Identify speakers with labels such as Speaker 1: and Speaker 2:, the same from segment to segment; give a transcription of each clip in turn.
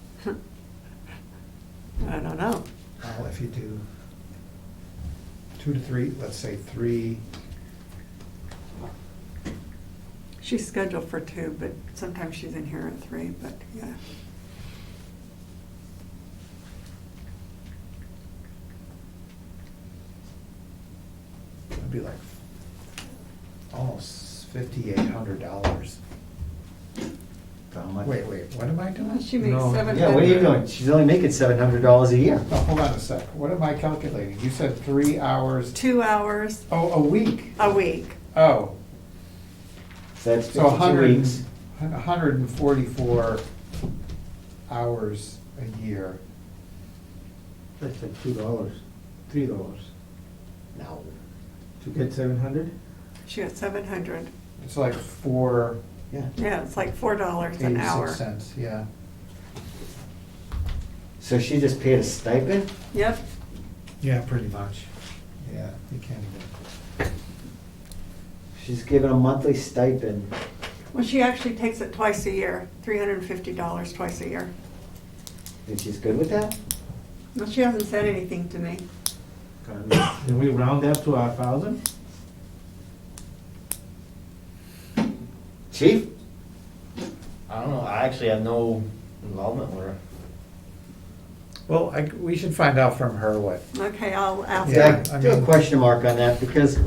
Speaker 1: I don't know.
Speaker 2: Well, if you do two to three, let's say three,
Speaker 1: She's scheduled for two, but sometimes she's in here at three, but yeah.
Speaker 2: it'd be like almost fifty-eight hundred dollars.
Speaker 3: How much?
Speaker 2: Wait, wait, what am I doing?
Speaker 1: She makes
Speaker 4: No.
Speaker 1: seven hundred.
Speaker 3: Yeah, what are you doing? She's only making seven hundred dollars a year.
Speaker 5: Oh.
Speaker 2: Now, hold on a sec, what am I calculating? You said three hours,
Speaker 1: Two hours
Speaker 2: oh, a week,
Speaker 1: a week.
Speaker 2: oh,
Speaker 3: So that's
Speaker 2: so a
Speaker 3: fifty-two
Speaker 2: hundred,
Speaker 3: weeks.
Speaker 2: and- a hundred and forty-four hours a year.
Speaker 5: That's like two dollars, three dollars.
Speaker 3: No.
Speaker 5: To get seven hundred?
Speaker 1: She got seven hundred.
Speaker 2: It's like four
Speaker 3: Yeah.
Speaker 1: Yeah, it's like four dollars an hour.
Speaker 2: eighty-six cents, yeah.
Speaker 3: So she just paid a stipend?
Speaker 1: Yep.
Speaker 2: Yeah, pretty much. Yeah, you can't even.
Speaker 3: She's given a monthly stipend.
Speaker 1: Well, she actually takes it twice a year, three hundred and fifty dollars twice a year.
Speaker 3: And she's good with that?
Speaker 1: Well, she hasn't said anything to me.
Speaker 5: Can we round that to a thousand?
Speaker 3: Chief?
Speaker 6: I don't know, I actually have no involvement with her.
Speaker 2: Well, I, we should find out from her what.
Speaker 1: Okay, I'll ask
Speaker 3: Yeah,
Speaker 1: her.
Speaker 2: I
Speaker 3: I do a
Speaker 2: mean-
Speaker 3: question mark on that because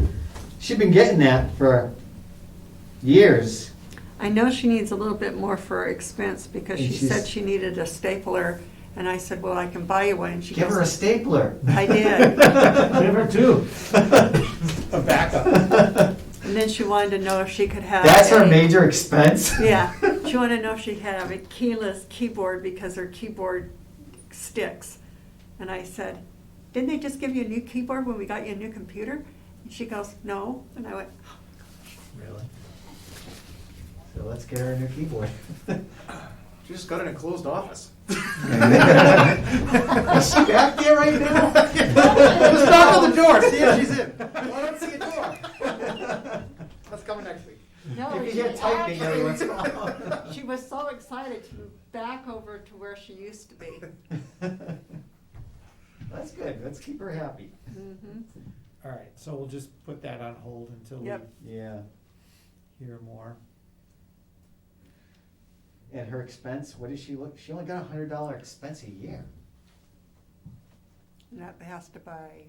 Speaker 3: she's been getting that for years.
Speaker 1: I know she needs a little bit more for expense because
Speaker 3: And
Speaker 1: she said
Speaker 3: she's-
Speaker 1: she needed a stapler and I said, well, I can buy you one. And she
Speaker 3: Give her a
Speaker 1: goes,
Speaker 3: stapler.
Speaker 1: I did.
Speaker 5: Give her two.
Speaker 2: A backup.
Speaker 3: That's
Speaker 1: And then she wanted to know if she could have.
Speaker 3: her
Speaker 1: a-
Speaker 3: major expense.
Speaker 1: Yeah, she wanted to know if she could have a keyless keyboard because her keyboard sticks. And I said, didn't they just give you a new keyboard when we got you a new computer? And she goes, no. And I went,
Speaker 3: Really? So let's get her a new keyboard.
Speaker 7: She just got an enclosed office.
Speaker 3: Is she back there right now? Just knock on the door, see if she's in. Well, I don't see a door.
Speaker 7: That's coming next week.
Speaker 1: no.
Speaker 3: If you get typing every once in a while.
Speaker 1: She was so excited to move back over to where she used to be.
Speaker 3: That's good, let's keep her happy.
Speaker 1: Mhm.
Speaker 2: All right, so we'll just put that on hold until we
Speaker 1: Yep.
Speaker 3: Yeah,
Speaker 2: hear more.
Speaker 3: and her expense, what is she look, she only got a hundred dollar expense a year.
Speaker 1: And that has to buy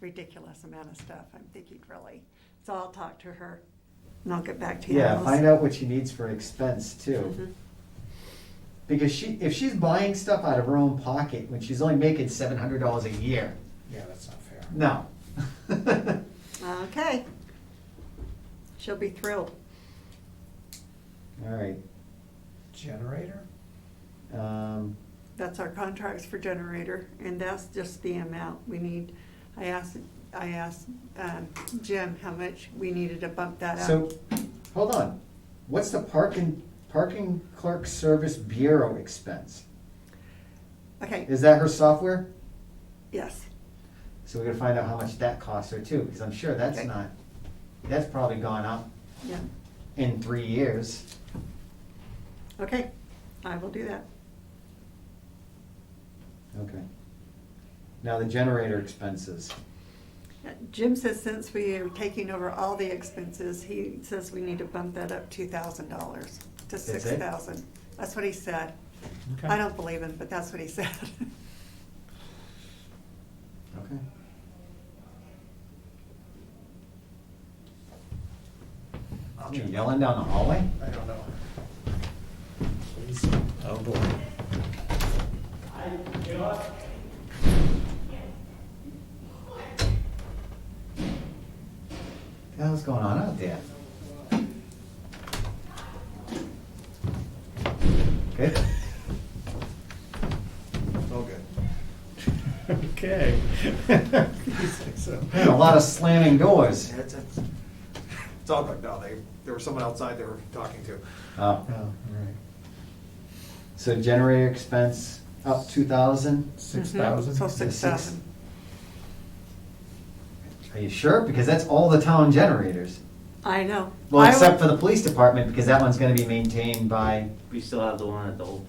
Speaker 1: ridiculous amount of stuff. I'm thinking really. So I'll talk to her and I'll get back to you. Mm-hmm.
Speaker 3: Yeah, find out Mm-hmm. what she needs for expense too. Because she, if she's buying stuff out of her own pocket, when she's only making seven hundred dollars a year,
Speaker 2: Yeah, that's not fair.
Speaker 3: no.
Speaker 1: Okay. She'll be thrilled.
Speaker 3: All right,
Speaker 2: Generator?
Speaker 3: um,
Speaker 1: That's our contracts for generator, and that's just the amount we need. I asked, I asked um, Jim how much we needed to bump that up.
Speaker 3: so, hold on, what's the parking, parking clerk service bureau expense?
Speaker 1: Okay,
Speaker 3: Is that her software?
Speaker 1: yes,
Speaker 3: So we're gonna find out how much that costs her too, because I'm sure that's
Speaker 1: Okay.
Speaker 3: not, that's probably gone up
Speaker 1: yeah,
Speaker 3: in three years.
Speaker 1: okay, I will do that.
Speaker 3: Okay. Now the generator expenses.
Speaker 1: Jim says since we are taking over all the expenses, he says we need to bump that up two thousand dollars to
Speaker 3: it?
Speaker 1: six thousand. That's what he said.
Speaker 2: Okay.
Speaker 1: I don't believe him, but that's what he said.
Speaker 3: Okay. You yelling down the hallway?
Speaker 2: I don't know.
Speaker 3: Oh, boy. The hell's going on out there? Good?
Speaker 7: It's all good.
Speaker 2: Okay.
Speaker 3: Man, A lot of slamming doors.
Speaker 7: It's, it's, it's all good. No, they, there was someone outside they were talking to.
Speaker 3: Oh,
Speaker 2: Oh, all right.
Speaker 1: Mm-hmm.
Speaker 3: so generator expense up two thousand?
Speaker 2: Six
Speaker 1: Mhm. So
Speaker 2: thousand?
Speaker 1: six thousand.
Speaker 3: Are you sure? Because that's all the town generators.
Speaker 1: I know.
Speaker 3: Well,
Speaker 1: I
Speaker 3: except
Speaker 1: would-
Speaker 3: for the police department, because that one's gonna be maintained by,
Speaker 8: We still have the one at the old